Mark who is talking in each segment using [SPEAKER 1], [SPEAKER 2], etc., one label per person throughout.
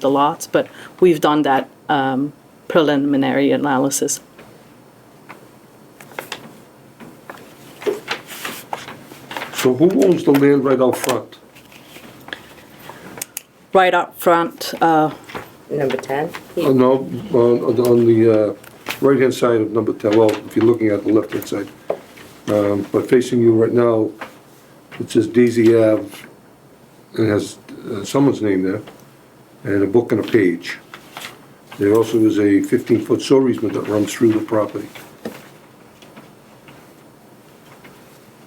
[SPEAKER 1] the lots, but we've done that um, preliminary analysis.
[SPEAKER 2] So who owns the land right out front?
[SPEAKER 1] Right up front, uh,
[SPEAKER 3] Number 10?
[SPEAKER 2] Uh, No, on, on- on the uh, right-hand side of number 10, well, if you're looking at the left-hand side. Um, But facing you right now, it says Daisy Ave, it has uh, someone's name there, and a book and a page. There also is a 15-foot sewer easement that runs through the property.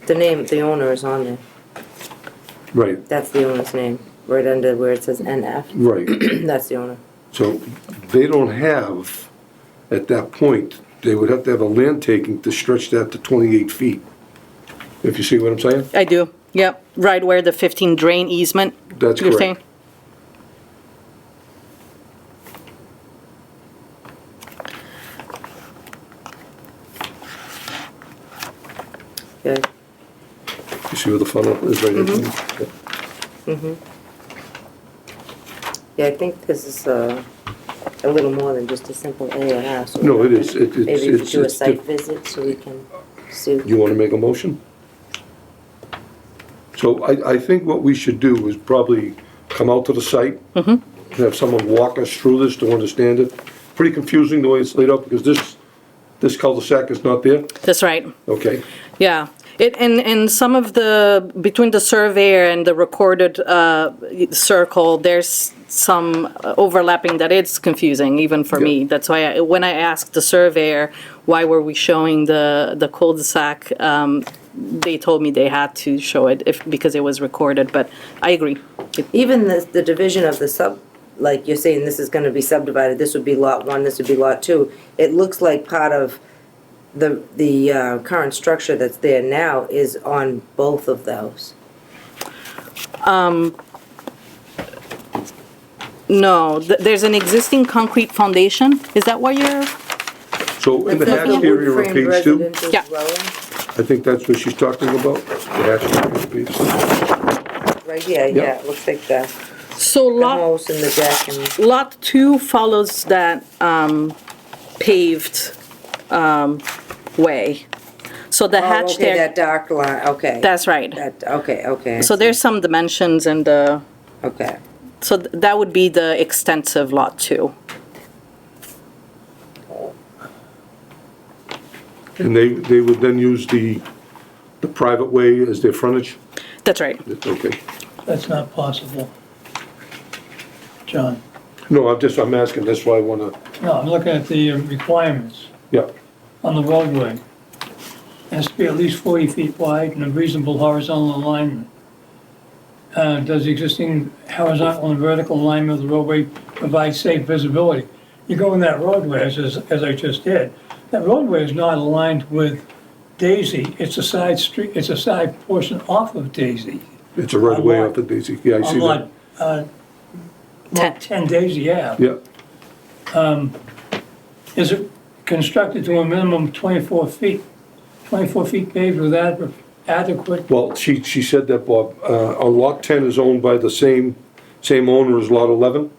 [SPEAKER 3] The name, the owner is on there.
[SPEAKER 2] Right,
[SPEAKER 3] That's the owner's name, right under where it says NF.
[SPEAKER 2] right.
[SPEAKER 3] That's the owner.
[SPEAKER 2] So they don't have, at that point, they would have to have a land taking to stretch that to 28 feet. If you see what I'm saying?
[SPEAKER 1] I do, yep, right where the 15 drain easement.
[SPEAKER 2] That's
[SPEAKER 1] you're
[SPEAKER 2] correct.
[SPEAKER 1] saying?
[SPEAKER 3] Good.
[SPEAKER 2] You see where the funnel is right there?
[SPEAKER 3] Mm-hmm. Yeah, I think this is uh, a little more than just a simple A and R. so
[SPEAKER 2] No, it
[SPEAKER 3] we
[SPEAKER 2] is.
[SPEAKER 3] can-
[SPEAKER 2] It- it's-
[SPEAKER 3] Maybe we
[SPEAKER 2] it's-
[SPEAKER 3] could do a
[SPEAKER 2] it's
[SPEAKER 3] site
[SPEAKER 2] diff-
[SPEAKER 3] visit so we can see.
[SPEAKER 2] You want to make a motion? So I, I think what we should do is probably come out to the site. Have someone walk us through this to understand it. Pretty confusing the way it's laid out because this, this cul-de-sac is not there.
[SPEAKER 1] That's right,
[SPEAKER 2] Okay,
[SPEAKER 1] yeah. It, and, and some of the, between the surveyor and the recorded uh, circle, there's some overlapping that it's confusing, even for me.
[SPEAKER 2] Yeah.
[SPEAKER 1] That's why, I- when I asked the surveyor, why were we showing the, the cul-de-sac, um, they told me they had to show it if, because it was recorded, but I agree. It-
[SPEAKER 3] Even the, the division of the sub, like you're saying, this is gonna be subdivided, this would be lot one, this would be lot two. It looks like part of the, the uh, current structure that's there now is on both of those.
[SPEAKER 1] No, th- there's an existing concrete foundation, is that what you're,
[SPEAKER 2] so in the
[SPEAKER 3] That's
[SPEAKER 2] hatched area on
[SPEAKER 3] wood-framed
[SPEAKER 2] page two.
[SPEAKER 3] residential
[SPEAKER 1] Yeah.
[SPEAKER 3] dwelling.
[SPEAKER 2] I think that's what she's talking about, the asterisk piece.
[SPEAKER 3] Right here, yeah, it looks like the,
[SPEAKER 1] so
[SPEAKER 3] the
[SPEAKER 1] lot,
[SPEAKER 3] house and the deck and,
[SPEAKER 1] lot two follows that um, paved um, way. So the
[SPEAKER 3] oh,
[SPEAKER 1] hatch
[SPEAKER 3] okay,
[SPEAKER 1] there,
[SPEAKER 3] that dark line, okay.
[SPEAKER 1] that's right.
[SPEAKER 3] That, okay, okay. I
[SPEAKER 1] So
[SPEAKER 3] see.
[SPEAKER 1] there's some dimensions and, uh,
[SPEAKER 3] Okay,
[SPEAKER 1] so th- that would be the extensive lot two.
[SPEAKER 2] And they, they would then use the, the private way as their frontage?
[SPEAKER 1] That's right.
[SPEAKER 2] Okay.
[SPEAKER 4] That's not possible. John,
[SPEAKER 2] No, I'm just, I'm asking, that's why I wanna,
[SPEAKER 4] no, I'm looking at the requirements
[SPEAKER 2] yeah,
[SPEAKER 4] on the roadway. It Has to be at least forty feet wide and a reasonable horizontal alignment. Uh, does the existing horizontal and vertical alignment of the roadway provide safe visibility? You go in that roadway, as, as I just did, that roadway is not aligned with Daisy, it's a side street, it's a side portion off of Daisy.
[SPEAKER 2] it's a right of way off the Daisy, yeah, I see that.
[SPEAKER 4] On lot, uh,
[SPEAKER 1] Ten.
[SPEAKER 4] lot ten Daisy Ave.
[SPEAKER 2] Yeah,
[SPEAKER 4] is it constructed to a minimum of 24 feet, 24 feet paved with ad- adequate,
[SPEAKER 2] well, she, she said that, Bob, uh, on lot ten is owned by the same, same owner as lot 11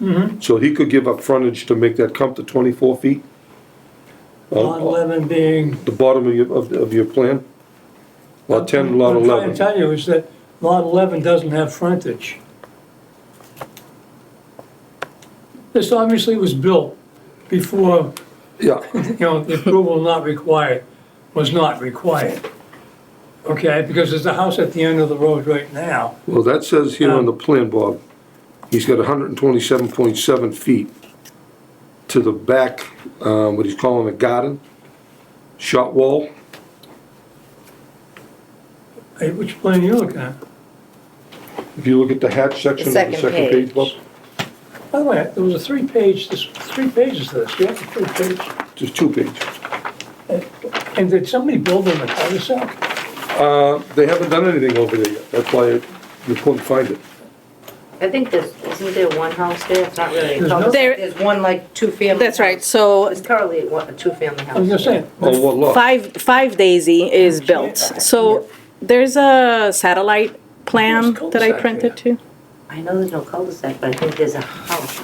[SPEAKER 2] Mm-hmm. So he could give up frontage to make that come to twenty-four feet? On-
[SPEAKER 4] lot 11 being...
[SPEAKER 2] The bottom of your, of, of your plan? Lot ten, and lot
[SPEAKER 4] What I'm trying to
[SPEAKER 2] eleven,
[SPEAKER 4] tell you is that lot 11 doesn't have frontage. This obviously was built before,
[SPEAKER 2] yeah.
[SPEAKER 4] you know, the approval not required, was not required. Okay, because there's a house at the end of the road right now.
[SPEAKER 2] Well, that says here on
[SPEAKER 3] Um,
[SPEAKER 2] the plan, Bob, he's got hundred and twenty-seven point seven feet to the back, um, what he's calling a garden, shot wall.
[SPEAKER 4] Hey, Which plan are you looking at?
[SPEAKER 2] If you look at the hatch section of
[SPEAKER 3] The
[SPEAKER 2] the
[SPEAKER 3] second
[SPEAKER 2] second page,
[SPEAKER 3] page.
[SPEAKER 2] Bob,
[SPEAKER 4] By the way, there was a three-page, this, three pages to this, you have the three pages.
[SPEAKER 2] just two pages.
[SPEAKER 4] And did somebody build on the cul-de-sac?
[SPEAKER 2] Uh, they haven't done anything over there yet, that's why you couldn't find it.
[SPEAKER 3] I think there's, isn't there one house there? It's not really.
[SPEAKER 4] There's no-
[SPEAKER 1] There-
[SPEAKER 3] There's one like two-family.
[SPEAKER 1] That's right,
[SPEAKER 3] house.
[SPEAKER 1] so
[SPEAKER 3] It's currently a one- a two-family house.
[SPEAKER 4] I was just saying,
[SPEAKER 2] Oh, what lot?
[SPEAKER 1] Five, Five Daisy is built, so there's a satellite plan
[SPEAKER 4] There's
[SPEAKER 1] that I
[SPEAKER 4] cul-de-sac
[SPEAKER 1] printed
[SPEAKER 4] there.
[SPEAKER 1] too.
[SPEAKER 5] I know there's no cul-de-sac, but I think there's a house